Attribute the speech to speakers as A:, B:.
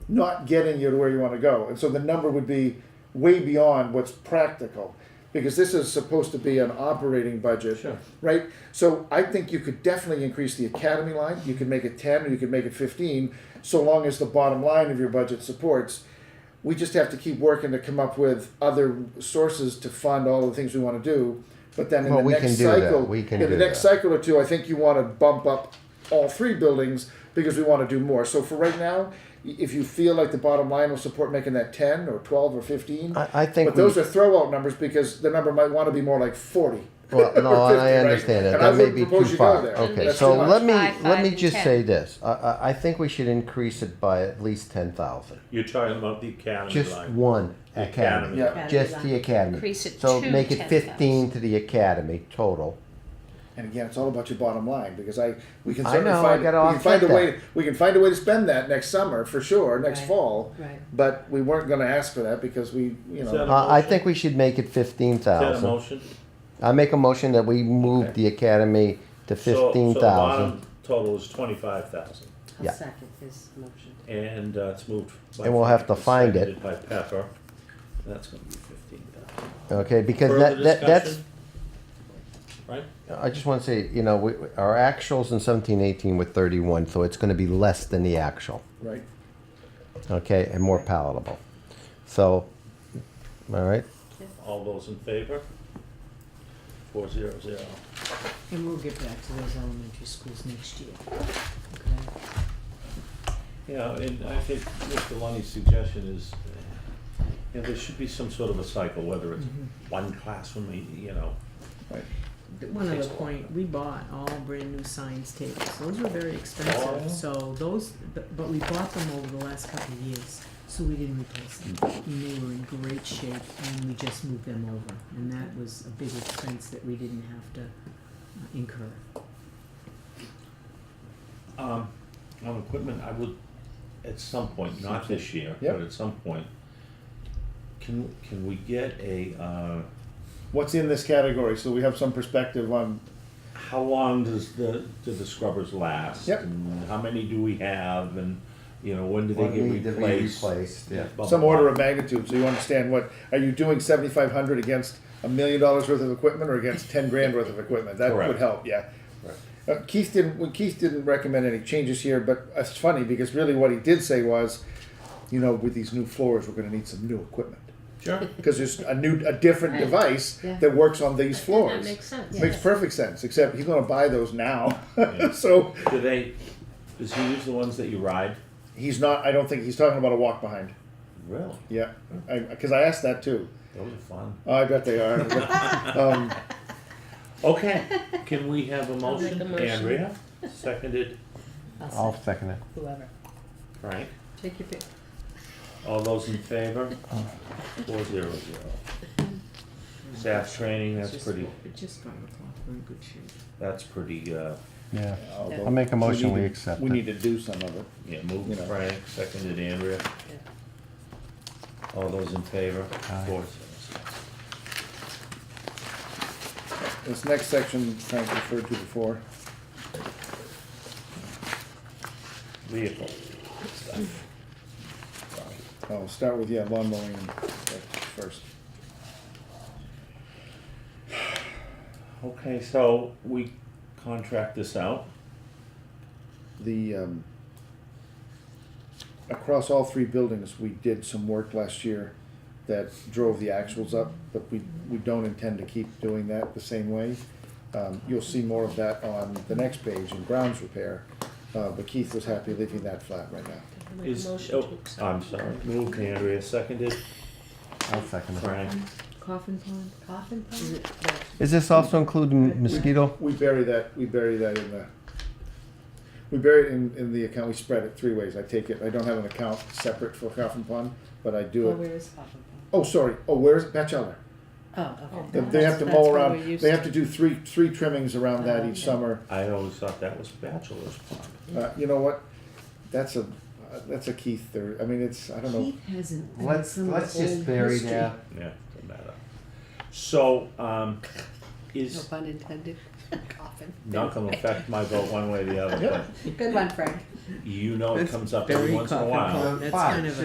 A: not getting you to where you want to go. And so the number would be way beyond what's practical because this is supposed to be an operating budget,
B: Sure.
A: right? So I think you could definitely increase the academy line. You could make it 10 or you could make it 15 so long as the bottom line of your budget supports. We just have to keep working to come up with other sources to fund all the things we want to do. But then in
C: Well,
A: the
C: we
A: next
C: can do that.
A: cycle,
C: We can
A: in the
C: do
A: next
C: that.
A: cycle or two, I think you want to bump up all three buildings because we want to do more. So for right now, y- if you feel like the bottom line will support making that 10 or 12 or 15,
C: I, I think
A: but those are throwout numbers because the number might want to be more like forty.
C: Well, no,
A: or 50,
C: and I
A: right?
C: understand that.
A: And I
C: That may
A: wouldn't
C: be too
A: propose you go
C: far.
A: there.
C: Okay,
A: That's
C: so
A: too much.
C: let me,
D: Five,
C: let
D: five,
C: me
D: and
C: just
D: 10.
C: say this. I, I, I think we should increase it by at least ten thousand.
B: You're talking about the academy
C: Just
B: line.
C: one
B: The
C: academy.
A: Yeah.
E: Academy
C: Just
E: line.
C: the academy.
D: Increase it
C: So
D: to
C: make it
D: 10,000.
C: fifteen to the academy total.
A: And again, it's all about your bottom line because I we can
C: I
A: certainly
C: know, I
A: find,
C: gotta
A: we can find a
C: offset
A: way we can find a way to spend that next summer for sure, next
E: Right.
A: fall.
E: Right.
A: But we weren't going to ask for that because we you know
B: So-
C: I, I
B: motion?
C: think we should make it fifteen
B: Is that a
C: thousand.
B: motion?
C: I make a motion that we move
B: Okay.
C: the academy to
B: So- so the
C: fifteen thousand.
B: bottom Total is twenty-five thousand,
C: Yeah.
E: I'll second his motion.
B: and uh, it's moved. by
C: And we'll have to
B: Frank,
C: find it.
B: seconded By Pepper, that's gonna be fifteen thousand.
C: Okay, because
B: Further
C: that, that, that's,
B: discussion? Right,
C: I just wanna say, you know, we, we- our actuals in seventeen eighteen were thirty-one, so it's gonna be less than the actual.
A: right.
C: okay, and more palatable. So, all right,
B: all those in favor? Four zero zero.
E: And we'll get back to those elementary schools next year.
B: Yeah, and I think Mr. Lunny's suggestion is, uh, you know, there should be some sort of a cycle, whether it's
C: Mm-hmm.
B: one classroom, you- you know,
E: Okay. One
B: Takes
E: other
B: a while.
E: point, we bought all brand new science tables. Those were very expensive,
B: Oh.
E: so those, but but we bought them over the last couple of years, so we didn't replace them.
C: Mm.
E: And they were in great shape and we just moved them over. And that was a big expense that we didn't have to uh, incur.
B: Um, on equipment, I would, at some point, not this year,
A: Yep.
B: but at some point, can, can we get a, uh,
A: What's in this category so we have some perspective on
B: how long does the, do the scrubbers last?
A: Yep.
B: And how many do we have, and, you know, when do they
C: What
B: get
C: need to be
B: replaced?
C: replaced, yeah.
B: Blah,
A: some
B: blah,
A: order
B: blah.
A: of magnitude so you understand what are you doing seventy five hundred against a million dollars worth of equipment or against ten grand worth of equipment? That
B: Correct.
A: would help. Yeah.
B: Right.
A: Uh, Keith didn't. Well, Keith didn't recommend any changes here, but it's funny because really what he did say was, you know, with these new floors, we're going to need some new equipment
B: Sure.
A: because there's a new, a different
D: Right.
A: device
E: Yeah.
A: that works on these floors.
D: makes sense.
A: Makes
D: Yes.
A: perfect sense. Except he's going to buy those now,
B: Yeah.
A: so
B: Do they, does he use the ones that you ride?
A: he's not. I don't think he's talking about a walk behind.
B: Really?
A: Yeah, because I, asked that too.
B: Those are fun.
A: Oh, I bet they are. But, um,
B: Okay, can we have a
D: I'll make
B: motion?
D: a motion.
B: Andrea, seconded,
C: I'll second it.
E: Whoever.
B: Frank,
E: Take your pick.
B: all those in favor? Four zero zero. Staff training, that's
E: Just-
B: pretty,
E: But just five o'clock, we're in good shape.
B: that's pretty, uh,
C: Yeah.
A: although
C: I'll make a motion,
A: need
C: we
A: to-
C: accept
A: We
C: it.
A: need to do some of it.
B: yeah, moved
A: You know.
B: Frank, seconded Andrea. All those in favor? Four zero zero.
A: This next section Frank referred to before.
B: Vehicle stuff.
A: I'll start with, yeah, lawn mowing and that first.
B: Okay, so we contract this out,
A: The, um, across all three buildings, we did some work last year that drove the actuals up, but we, we don't intend to keep doing that the same way. Um, you'll see more of that on the next page in grounds repair, uh, but Keith was happy leaving that flat right now.
B: is, oh, I'm sorry, moved Andrea, seconded
C: I'll second it.
B: Frank.
E: Coffin pond?
D: Coffin pot?
E: Is it that?
C: Is this also including mosquito?
A: We bury that, we bury that in the, we bury it in, in the account, we spread it three ways, I take it, I don't have an account separate for Coffin Pond, but I do
E: Oh,
A: it.
E: where is Coffin pond?
A: Oh, sorry, oh, where's Batchelor?
E: Oh, okay.
A: They-
E: That's-
A: They have to
E: that's
A: mow
E: where
A: around,
E: we're used
A: they
E: to.
A: have to do three, three trimmings around that
E: Oh,
A: each
E: okay.
A: summer.
B: I always thought that was bachelor's pond.
A: Uh, you know what, that's a, uh, that's a Keith, or, I mean, it's, I don't know.
E: Keith hasn't. done
C: Let's,
E: some
C: let's just
E: old
C: bury
E: history.
C: that.
B: Yeah, doesn't matter. So, um,
D: No
B: is,
D: pun intended. Coffin.
B: not gonna affect my vote one way or the other,
A: Yeah.
B: but
D: Good one, Frank.
B: you know it
E: That's
B: comes up
E: very
B: every once in a
E: common.
B: while.
E: That's kind of a-